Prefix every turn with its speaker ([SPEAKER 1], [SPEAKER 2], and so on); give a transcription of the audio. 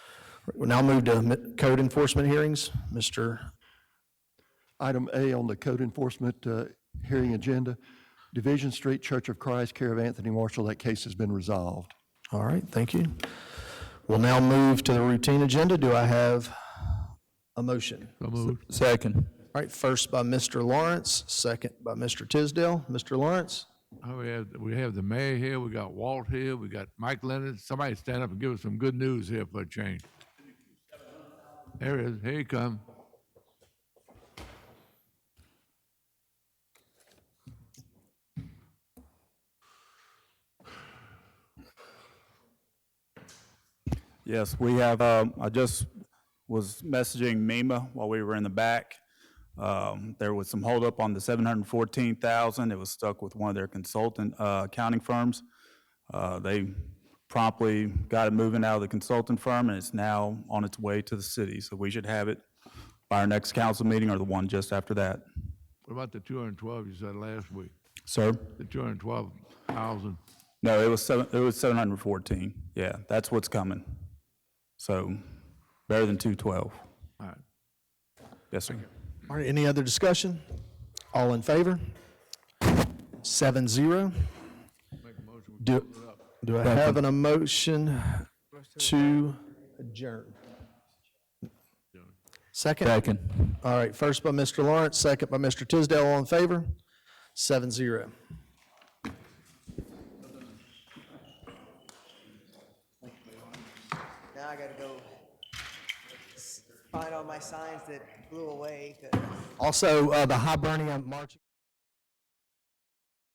[SPEAKER 1] We'll now move to mi- code enforcement hearings. Mr.
[SPEAKER 2] Item A on the code enforcement uh, hearing agenda, Division Street Church of Christ, care of Anthony Marshall, that case has been resolved.
[SPEAKER 1] All right, thank you. We'll now move to the routine agenda. Do I have a motion?
[SPEAKER 3] Second.
[SPEAKER 1] All right, first by Mr. Lawrence, second by Mr. Tisdale. Mr. Lawrence?
[SPEAKER 4] Oh, we have, we have the mayor here, we got Walt here, we got Mike Leonard. Somebody stand up and give us some good news here for a change. There he is, here he come.
[SPEAKER 3] Yes, we have, um, I just was messaging MEMA while we were in the back. Um, there was some holdup on the seven hundred and fourteen thousand. It was stuck with one of their consultant, uh, accounting firms. Uh, they promptly got it moving out of the consultant firm and it's now on its way to the city. So we should have it by our next council meeting or the one just after that.
[SPEAKER 4] What about the two hundred and twelve you said last week?
[SPEAKER 3] Sir?
[SPEAKER 4] The two hundred and twelve thousand?
[SPEAKER 3] No, it was seven, it was seven hundred and fourteen. Yeah, that's what's coming. So better than two twelve.
[SPEAKER 4] All right.
[SPEAKER 3] Yes, sir.
[SPEAKER 1] All right, any other discussion? All in favor? Seven zero. Do, do I have an emotion to adjourn? Second?
[SPEAKER 3] Second.
[SPEAKER 1] All right, first by Mr. Lawrence, second by Mr. Tisdale, all in favor? Seven zero.
[SPEAKER 5] Now I gotta go s- find all my signs that blew away, 'cause-
[SPEAKER 1] Also, uh, the high burning on March.